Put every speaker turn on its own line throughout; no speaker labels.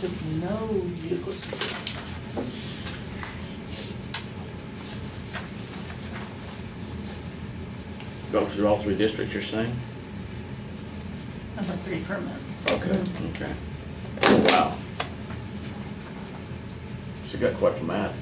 took no vehicles.
Go through all three districts you're saying?
Number three permits.
Okay. Okay. Oh, Wow. She got quite the map.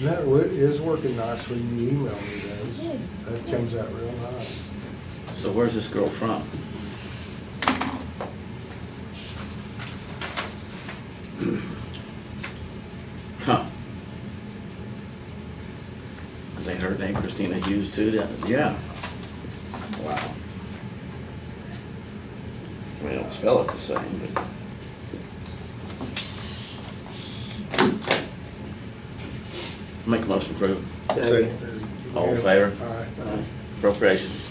That wo- is working nice when you email me those. That comes out real nice.
So where's this girl from? Huh. They heard name Christina Hughes too, that, yeah. Wow. They don't spell it the same, but. Make a motion approve All in favor?
All right.
appropriations.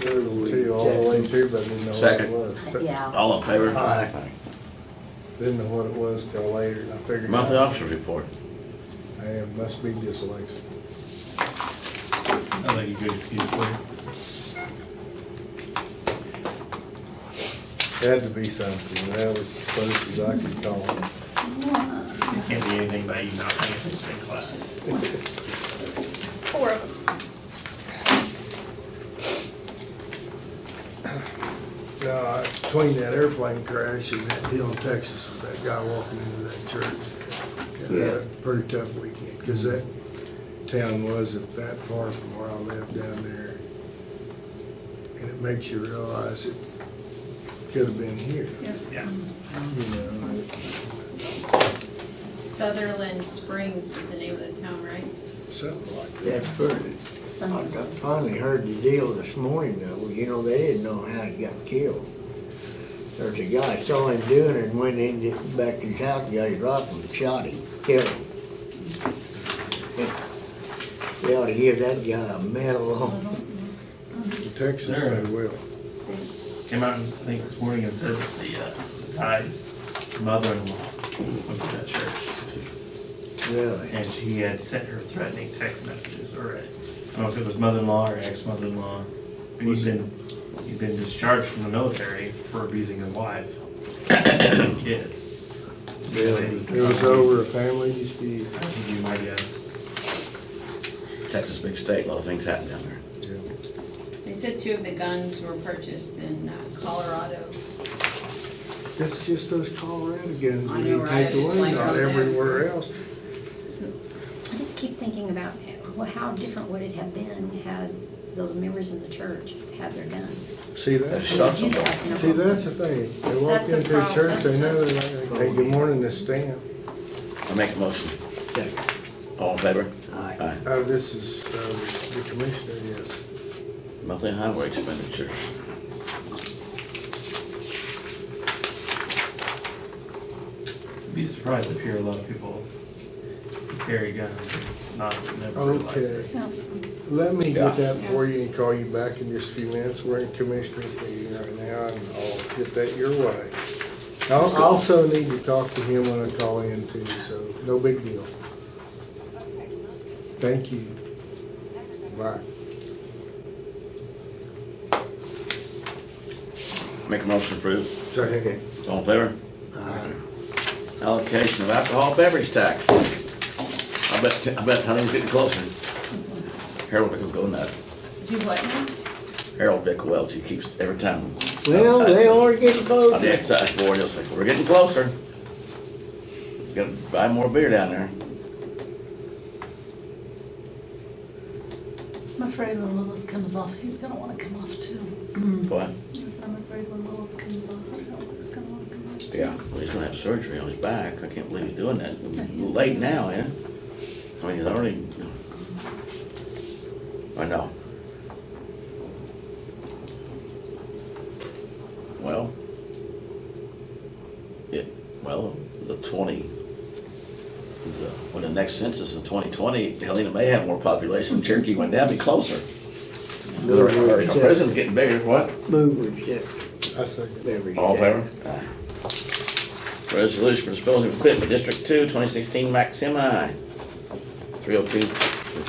Two, all the way through, but didn't know what it
Second.
was.
Yeah,
All in favor?
Aye. Didn't know what it was till later, and I figured
Monthly
out,
officer report.
hey, it must be dyslexia.
I think you could excuse it for
It had to be something, that was as close as I could call it.
you. It can't be anything by you not paying attention in class.
Four of them.
No, I- between that airplane crash and that deal in Texas with that guy walking into that church, I had a pretty tough weekend, because that town wasn't that far from where I lived down there. And it makes you realize it could have been here,
Yeah.
you know?
Sutherland Springs is the name of the town, right?
Something like that.
That first, I
some,
got- finally heard the deal this morning though, you know, they didn't know how he got killed. There's a guy, saw him doing it, and went in to- back to his house, got his rifle and shot him, killed him. They ought to give that guy a medal.
In Texas, they will.
Came out, I think, this morning and said that the, uh, the guy's mother-in-law went to that church.
Really?
And she had sent her threatening text messages, or, uh, I don't know if it was mother-in-law or ex-mother-in-law. And he's been, he's been discharged from the military for abusing his wife and kids.
Really?
It was over a family dispute.
I think you might guess.
Texas big state, a lot of things happen down there.
They said two of the guns were purchased in uh, Colorado.
That's just those Colorado guns
I
that
know,
you
right?
take away,
Like
not
on that.
everywhere else.
I just keep thinking about, well, how different would it have been had those members in the church had their guns?
See, that's.
Shot
Would you
somebody.
have in a
See,
box?
that's the thing, they walk
That's the
into a church, they
problem.
know they're not gonna take good morning to stamp.
I make a motion.
Second.
All in favor?
Aye.
Oh, this is, uh, the commissioner, yes.
Monthly highway expenditure.
Be surprised if here a lot of people who carry guns, not, never realize it.
Okay,
Well,
let me
Yeah.
get that for you and call you back in just a few minutes, we're in commissioner's meeting right now, and I'll get that your way. I'll, I also need to talk to him when I call in too, so, no big deal. Thank you. Bye.
Make a motion approved.
Second.
All in favor?
Aye.
Allocation of alcohol beverage tax. I bet, I bet Huntington's getting closer. Harold Vick will go nuts.
Do what now?
Harold Vick Welch, he keeps, every time
Well, they are getting
on the
closer.
excise board, he'll say, we're getting closer. Gotta buy more beer down there.
I'm afraid when Willis comes off, he's gonna wanna come off too.
Mm-hmm.
What?
I said, I'm afraid when Willis comes off, I don't know who's gonna wanna come off.
Yeah. Well, he's gonna have surgery on his back. I can't believe he's doing that. Late now, yeah? I mean, he's already. I know. Well. It, well, the twenty. the- When the next census in twenty twenty, Helena may have more population. Cherokee went down, be closer. Our
Move
our
we accept,
prison's getting bigger, what?
move we accept
I second.
beverage
All in
tax.
favor? Resolution for disposing of equipment, District oh Two, 2016 Maxima, 302